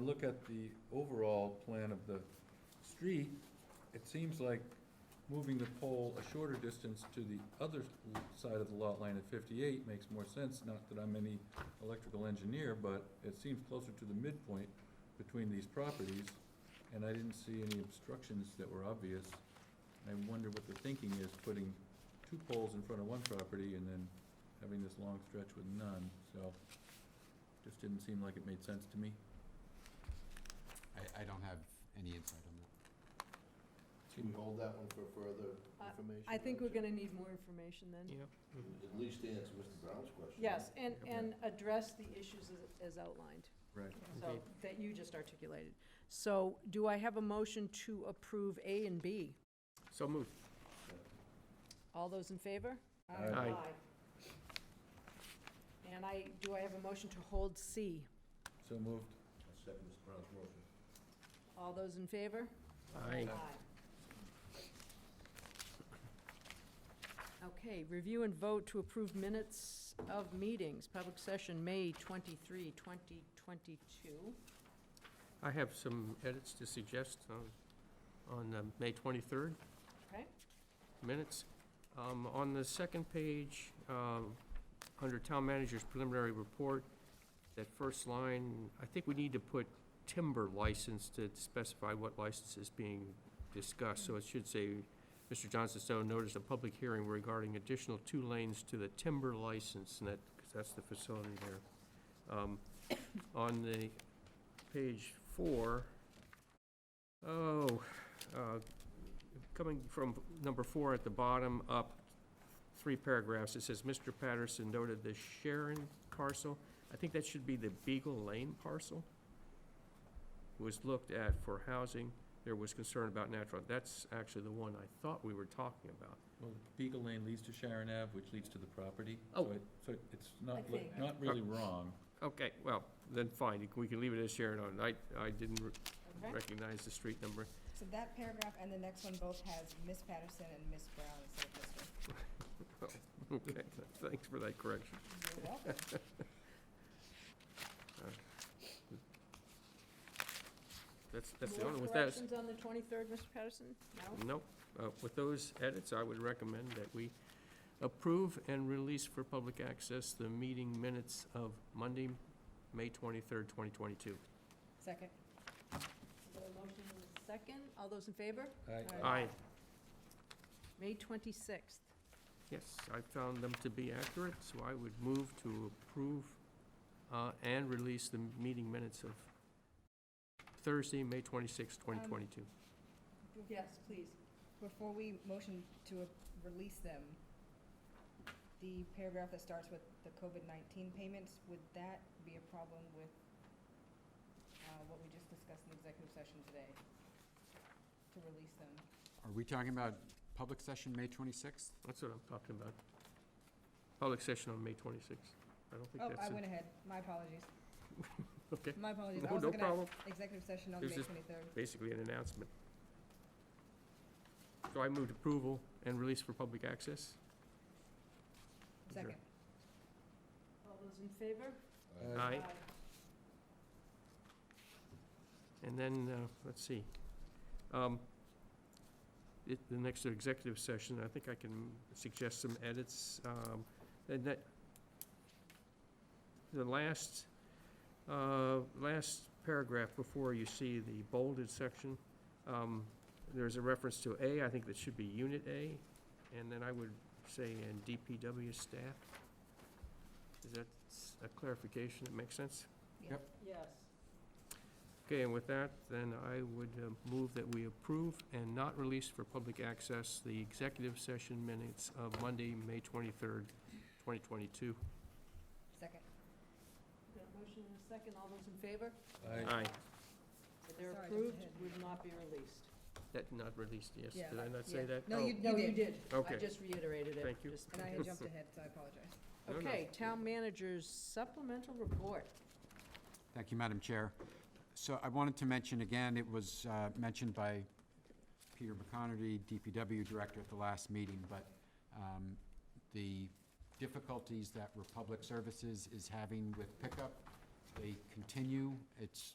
look at the overall plan of the street, it seems like moving the pole a shorter distance to the other l- side of the lot line at fifty-eight makes more sense. Not that I'm any electrical engineer, but it seems closer to the midpoint between these properties, and I didn't see any obstructions that were obvious. I wonder what the thinking is, putting two poles in front of one property and then having this long stretch with none, so just didn't seem like it made sense to me. I, I don't have any insight on that. Can we hold that one for further information? I think we're Roger? gonna need more information then. At least answer Mr. Brown's question. Yes, and, Okay. and address the issues as, as outlined, Right. so, that you just articulated. So, do I have a motion to approve A and B? So moved. All those in favor? Aye. Aye. And I, do I have a motion to hold C? So moved. I second Mr. Brown's motion. All those in favor? Aye. Okay, review and vote to approve minutes of meetings, public session, May 23, 2022. I have some edits to suggest on, on uh, May 23rd. Okay. Minutes. Um, On the second page, um, under Town Manager's preliminary report, that first line, I think we need to put timber license to specify what license is being discussed. So it should say, Mr. Johnson Stowe noticed a public hearing regarding additional two lanes to the timber license, and that, because that's the facility there. Um, On the page four, oh, uh, coming from number four at the bottom up, three paragraphs, it says, Mr. Patterson noted the Sharon parcel. I think that should be the Beagle Lane parcel. Was looked at for housing. There was concern about natural, that's actually the one I thought we were talking about. Well, Beagle Lane leads to Sharon Ave, which leads to the property. so Oh. it- So it's I not, li- think. not really wrong. Okay, well, then fine, we can leave it as Sharon on. I, I didn't re- Okay. recognize the street number. So that paragraph and the next one both has Miss Patterson and Miss Brown instead of Mr. Okay, thanks for that correction. You're welcome. That's, that's the only, More with that, corrections on the 23rd, Mr. Patterson? No? Nope. Uh, With those edits, I would recommend that we approve and release for public access the meeting minutes of Monday, May 23rd, 2022. Second. The motion is second. All those in favor? I, Aye. May 26th. Yes, I found them to be accurate, so I would move to approve uh, and release the meeting minutes of Thursday, May Um, 26th, 2022. Yes, please. Before we motion to a- release them, the paragraph that starts with the COVID-19 payments, would that be a problem with uh, what we just discussed in executive session today? To release them? Are we talking about public session, May 26th? That's what I'm talking about. Public session on May 26th. I don't Oh, think that's I it. went ahead. My apologies. Okay. My apologies. I No- was No looking at problem. executive session on There's May this- 23rd. basically an announcement. So I moved approval and release for public access. Second. All those in favor? Aye. Aye. And then, uh, let's see. Um, it- The next executive session, I think I can suggest some edits. um, And that, the last, uh, last paragraph before you see the bolded section, um, there's a reference to A, I think that should be Unit A, and then I would say, and DPW staff. Is that s- a clarification that makes sense? Yes. Okay, and with that, then I would uh, move that we approve and not release for public access the executive session minutes of Monday, May 23rd, 2022. Second. Got a motion and a second. All those in favor? I, Aye. If they're Sorry, I jumped approved, ahead. would not be released. That not released, yes. Yeah. Did I not Yeah. say that? No, Oh, you No, you did. did. I Okay. just reiterated it. Thank you. Just- And I had jumped ahead, so I apologize. No, no. Okay, town manager's supplemental report. Thank you, Madam Chair. So I wanted to mention again, it was uh, mentioned by Peter McConerty, DPW Director at the last meeting, but um, the difficulties that Republic Services is having with pickup, they continue. It's